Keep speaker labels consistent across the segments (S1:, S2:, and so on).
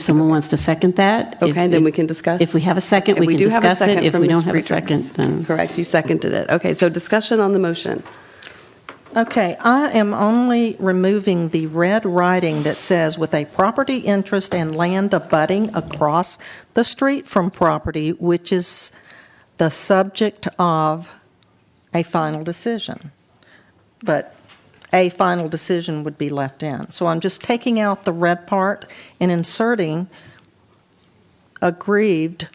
S1: Someone wants to second that? If-
S2: Okay, then we can discuss.
S1: If we have a second,
S2: And
S1: we can
S2: do have a
S1: discuss it.
S2: second
S1: If
S2: from
S1: we don't
S2: Ms.
S1: have a second,
S2: Friedrichs.
S1: then.
S2: Correct, you seconded it. Okay, so discussion on the motion.
S3: Okay, I am only removing the red writing that says with a property interest and land abutting across the street from property, which is the subject of a final decision. But a final decision would be left in. So I'm just taking out the red part and inserting aggrieved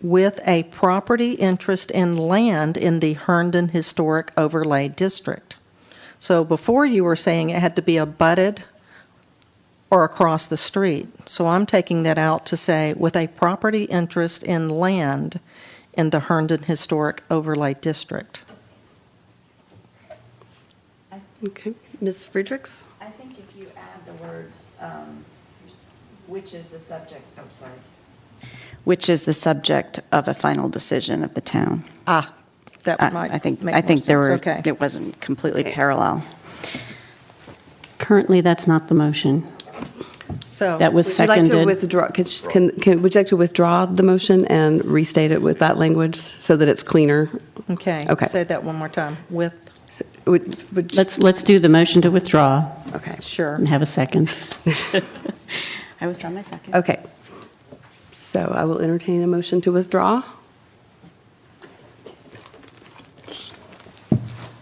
S3: with a property interest in land in the Herndon Historic Overlay District. So before you were saying it had to be abutted or across the street. So I'm taking that out to say with a property interest in land in the Herndon Historic Overlay District.
S2: Okay, Ms. Friedrichs?
S4: I think if you add the words, um, which is the subject, oh, sorry. Which is the subject of a final decision of the town.
S3: Ah,
S4: I
S3: that might
S4: I think,
S3: make
S4: I
S3: more
S4: think there
S3: sense.
S4: were,
S3: Okay.
S4: it wasn't completely parallel.
S1: Currently, that's not the motion.
S3: So
S1: That was
S2: Would you like to
S1: seconded.
S2: withdraw, could sh- can, can, would you like to withdraw the motion and restate it with that language so that it's cleaner?
S3: Okay.
S2: Okay.
S3: Say that one more time. With
S2: So, Would, would, you-
S1: Let's, let's do the motion to withdraw
S2: okay,
S3: sure.
S1: and have a second.
S4: I withdraw my second.
S2: okay. So I will entertain a motion to withdraw.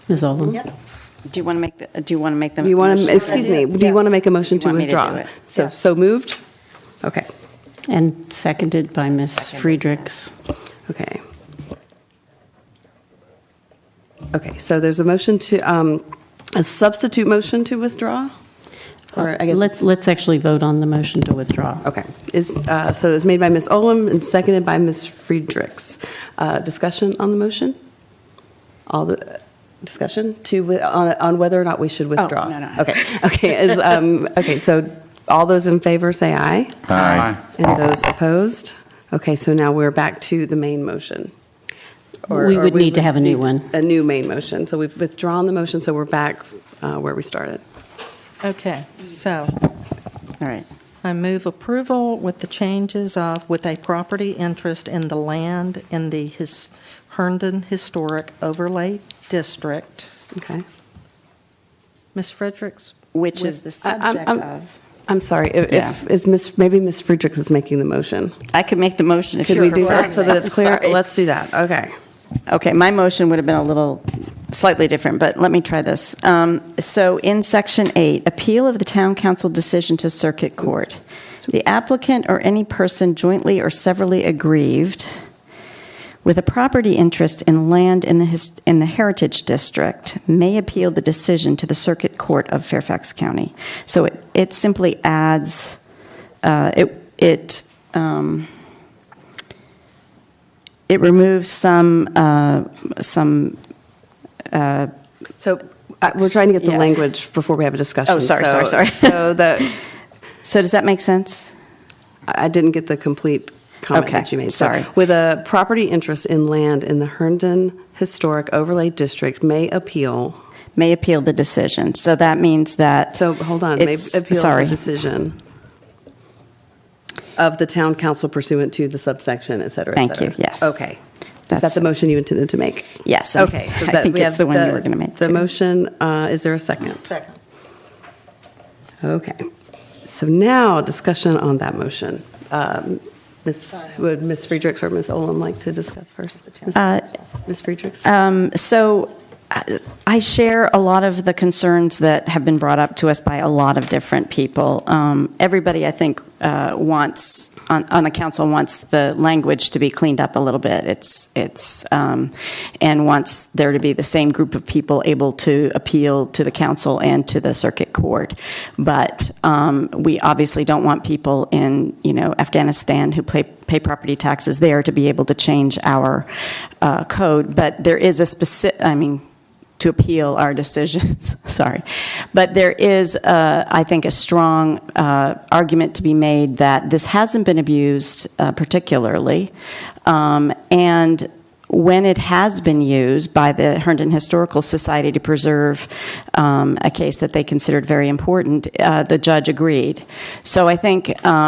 S1: Ms. Olam?
S3: Yes.
S4: Do you want to make, the- uh, do you want to make them?
S2: Do you want to, excuse me, do you want to make a motion
S4: You
S2: to
S4: want me to do
S2: withdraw?
S4: it?
S2: So,
S3: Yes.
S2: so moved? Okay,
S1: And seconded by Ms. Friedrichs.
S2: okay. Okay, so there's a motion to, um, a substitute motion to withdraw?
S4: Uh,
S2: Or I guess.
S1: Let's, let's actually vote on the motion to withdraw.
S2: Okay, is, uh, so it's made by Ms. Olam and seconded by Ms. Friedrichs. Uh, Discussion on the motion? All the, discussion to, wi- on on whether or not we should withdraw?
S4: Oh, no, no, no.
S2: Okay, okay, is, um, okay, so all those in favor say aye.
S5: Aye.
S2: And those opposed? Okay, so now we're back to the main motion. Or-
S1: We
S2: or
S1: would need to have a new
S2: need
S1: one.
S2: A new main motion, so we've withdrawn the motion, so we're back uh, where we started.
S3: Okay, so
S4: All right.
S3: I move approval with the changes of, with a property interest in the land in the his Herndon Historic Overlay District.
S2: Okay.
S3: Ms. Fredericks?
S4: Which is the
S2: I- I'm-
S4: subject
S2: I'm-
S4: of?
S2: I'm sorry, if- if,
S4: Yeah.
S2: is Miss, maybe Miss Friedrichs is making the motion.
S4: I could make the motion if you
S2: Could we do
S4: prefer.
S2: that so that it's clear?
S4: Sorry.
S2: Let's do that, okay.
S4: Okay, my motion would have been a little slightly different, but let me try this. Um, So in Section 8, appeal of the town council decision to circuit court. The applicant or any person jointly or severally aggrieved with a property interest in land in the, his- in the Heritage District may appeal the decision to the Circuit Court of Fairfax County. So it, it simply adds, uh, it, it, um, it removes some, uh, some,
S2: So uh, we're trying to get the
S4: Yeah.
S2: language before we have a discussion.
S4: Oh, sorry, sorry,
S2: So-
S4: sorry.
S2: So the,
S4: so does that make sense?
S2: I didn't get the complete comment
S4: Okay,
S2: that you made. So,
S4: sorry.
S2: With a property interest in land in the Herndon Historic Overlay District may appeal,
S4: may appeal the decision. So that means that.
S2: so hold on, may
S4: It's-
S2: appeal the
S4: Sorry.
S2: decision of the town council pursuant to the subsection, et cetera, et
S4: Thank you,
S2: cetera.
S4: yes.
S2: Okay. Is that
S4: That's-
S2: the motion you intended to make?
S4: Yes. I-
S2: Okay. so
S4: I
S2: that
S4: think
S2: we
S4: it's
S2: have
S4: the one you were going to make.
S2: The
S4: too.
S2: motion, uh, is there a second?
S3: Second.
S2: Okay. So now, discussion on that motion. Um, Ms., would Ms. Friedrichs or Ms. Olin like to discuss first? Ms.
S4: Uh,
S2: Ms. Friedrichs?
S4: Um, So uh, I share a lot of the concerns that have been brought up to us by a lot of different people. Um, Everybody, I think, uh, wants, on on the council, wants the language to be cleaned up a little bit. It's, it's, um, and wants there to be the same group of people able to appeal to the council and to the circuit court. But um, we obviously don't want people in, you know, Afghanistan who pay pay property taxes there to be able to change our uh, code, but there is a specific, I mean, to appeal our decisions, sorry. But there is, uh, I think, a strong uh, argument to be made that this hasn't been abused uh, particularly, Um, and when it has been used by the Herndon Historical Society to preserve um, a case that they considered very important, uh, the judge agreed. So I think um,